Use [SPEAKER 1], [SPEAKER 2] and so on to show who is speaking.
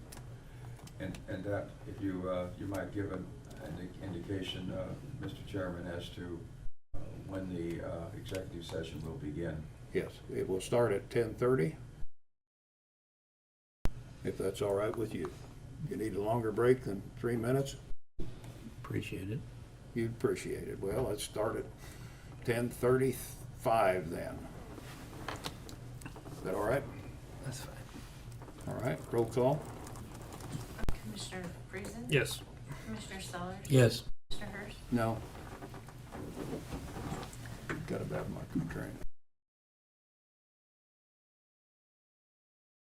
[SPEAKER 1] And, and that, if you, uh, you might give an indi- indication, uh, Mr. Chairman, as to uh, when the uh, executive session will begin.
[SPEAKER 2] Yes, it will start at ten thirty. If that's all right with you. You need a longer break than three minutes,
[SPEAKER 3] Appreciate it.
[SPEAKER 2] you'd appreciate it. Well, let's start at ten thirty-five then. Is that all right?
[SPEAKER 3] That's fine.
[SPEAKER 2] All right, roll call?
[SPEAKER 4] Commissioner Friesen?
[SPEAKER 3] Yes.
[SPEAKER 4] Commissioner Sellers?
[SPEAKER 3] Yes.
[SPEAKER 4] Commissioner Hurst?
[SPEAKER 2] No. Got about my train.